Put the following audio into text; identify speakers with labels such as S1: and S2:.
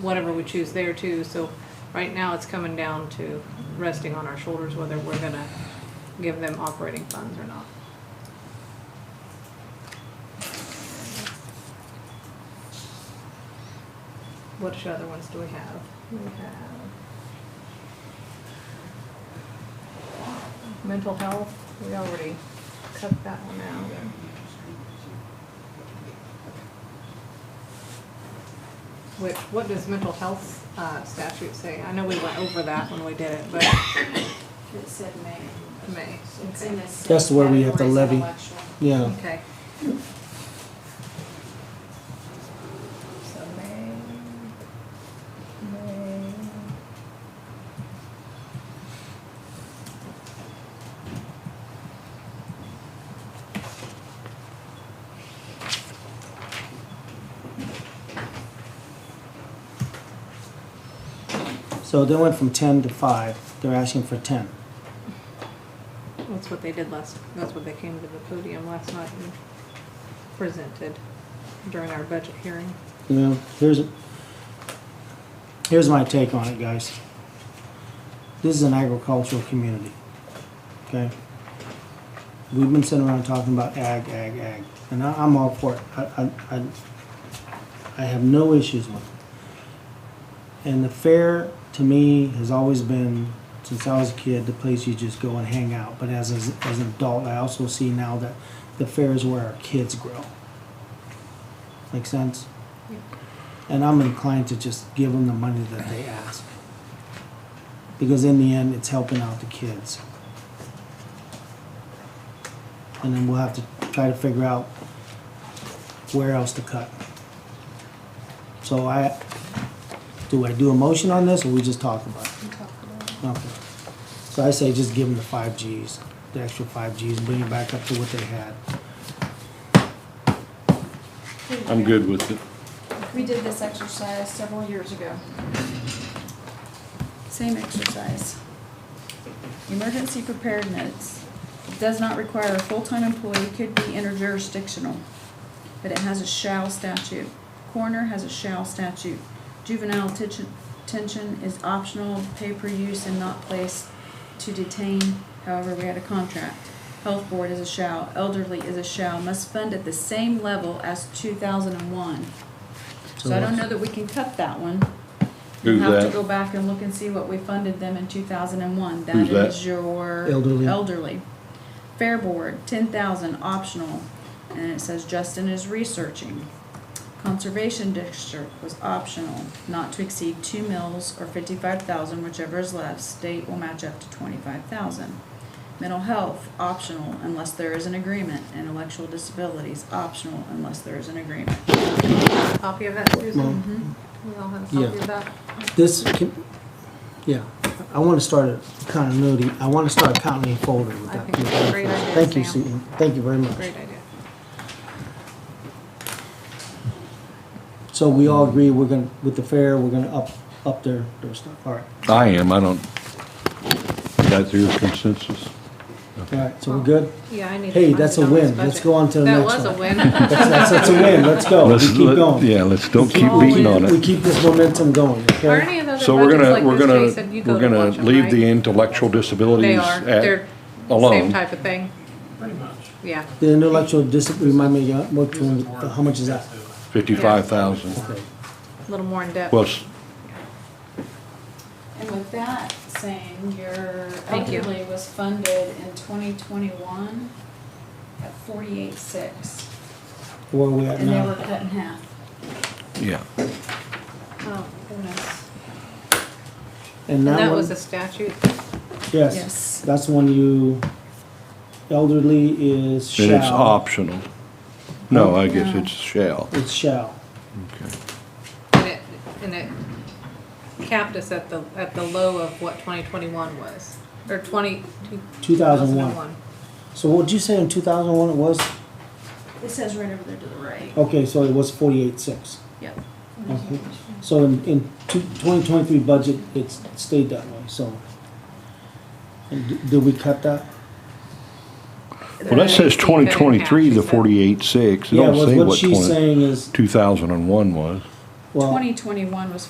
S1: whatever we choose there too. So right now it's coming down to resting on our shoulders whether we're gonna give them operating funds or not. Which other ones do we have? We have mental health, we already cut that one out. Which, what does mental health uh, statute say? I know we went over that when we did it, but
S2: It said May.
S1: May,
S2: It's
S1: okay.
S2: in the same
S3: That's the one we have to
S2: category as
S3: levy.
S2: intellectual.
S3: Yeah,
S1: Okay. So May, May.
S3: so they went from ten to five, they're asking for ten.
S1: That's what they did last, that's what they came to the podium last night and presented during our budget hearing.
S3: You know, here's, here's my take on it, guys. This is an agricultural community, okay? We've been sitting around talking about ag, ag, ag, and I, I'm all for it. I, I, I, I have no issues with it. And the fair, to me, has always been, since I was a kid, the place you just go and hang out. But as, as, as an adult, I also see now that the fair is where our kids grow. Make sense? And I'm inclined to just give them the money that they ask. Because in the end, it's helping out the kids. And then we'll have to try to figure out where else to cut. So I, do I do a motion on this or we just talk about it? Okay. So I say just give them the five Gs, the extra five Gs, and bring it back up to what they had.
S4: I'm good with it.
S2: We did this exercise several years ago.
S5: Same exercise. Emergency preparedness does not require a full-time employee, could be interjurisdictional, but it has a shall statute. Coroner has a shall statute. Juvenile detention detention is optional, pay per use and not placed to detain, however, we had a contract. Health board is a shall, elderly is a shall, must fund at the same level as two thousand and one. So I don't know that we can cut that one. We'll
S4: Who's
S5: have to
S4: that?
S5: go back and look and see what we funded them in two thousand and one. That
S4: Who's that?
S5: is your
S3: Elderly.
S5: elderly. Fair board, ten thousand, optional, and it says Justin is researching. Conservation district was optional, not to exceed two mills or fifty-five thousand, whichever is less, state will match up to twenty-five thousand. Mental health, optional unless there is an agreement, intellectual disabilities, optional unless there is an agreement.
S1: Copy of that, Susan? Mm-hmm.
S5: Mhm.
S1: We all have a copy
S3: Yeah.
S1: of that?
S3: This can, yeah, I want to start a continuity, I want to start a continuity folder with
S1: I
S3: that.
S1: think it's a great idea,
S3: Thank you,
S1: Sam.
S3: Susan, thank you very much.
S1: Great idea.
S3: So we all agree, we're gonna, with the fair, we're gonna up, up their, their stuff, all right.
S4: I am, I don't, that's your consensus?
S3: All right, so we're good?
S1: Yeah, I need. to
S3: Hey,
S1: find
S3: that's
S1: it
S3: a
S1: on this
S3: win. Let's
S1: budget.
S3: go on to the
S1: That
S3: next
S1: was a
S3: one.
S1: win.
S3: That's, that's, that's a win, let's go, Oh, we
S4: Let's
S3: keep
S4: let-
S3: going.
S4: Yeah, let's, don't keep
S5: all
S4: beating
S5: in.
S4: on
S3: We
S4: it.
S3: keep this momentum going,
S1: Are
S3: okay?
S1: any of the other
S4: So we're
S1: budgets
S4: gonna, we're
S1: like this, Jason?
S4: gonna,
S1: You go
S4: we're
S1: to
S4: gonna
S1: watch 'em,
S4: leave
S1: right?
S4: the intellectual
S1: They
S4: disabilities
S1: are, they're
S4: at,
S1: same
S4: alone.
S1: type of thing. Pretty much. Yeah.
S3: The intellectual dis, remind me, uh, what, how much is that?
S4: fifty-five thousand.
S1: A little more in depth.
S4: Well, s-
S5: And with that saying, your
S1: Thank you.
S5: elderly was funded in twenty twenty-one at forty-eight six,
S3: Where are we at
S5: and they were
S3: now?
S5: cut in half.
S4: yeah,
S1: oh goodness.
S3: And
S1: And that
S3: that
S1: was
S3: one,
S1: a statute.
S3: yes,
S5: Yes.
S3: that's when you, elderly is shall.
S4: and it's optional. No, I guess
S5: No.
S4: it's shall.
S3: It's shall.
S4: Okay.
S1: And it, and it capped us at the, at the low of what twenty twenty-one was, or twenty, two
S3: 2001.
S1: thousand one.
S3: So what'd you say in two thousand one it was?
S5: It says right over there to the right.
S3: Okay, so it was forty-eight six.
S5: Yep.
S3: Okay. So in, in two, twenty twenty-three budget, it's stayed that way, so. And d- Did we cut that?
S4: Well, that
S1: Keep it
S4: says
S1: in
S4: twenty
S1: half,
S4: twenty-three,
S1: she
S4: the
S1: said.
S4: forty-eight six, it
S3: Yeah,
S4: don't
S3: what-
S4: say
S3: what
S4: what
S3: she's
S4: twenty,
S3: saying is,
S4: two thousand and one was.
S3: well.
S5: Twenty twenty-one was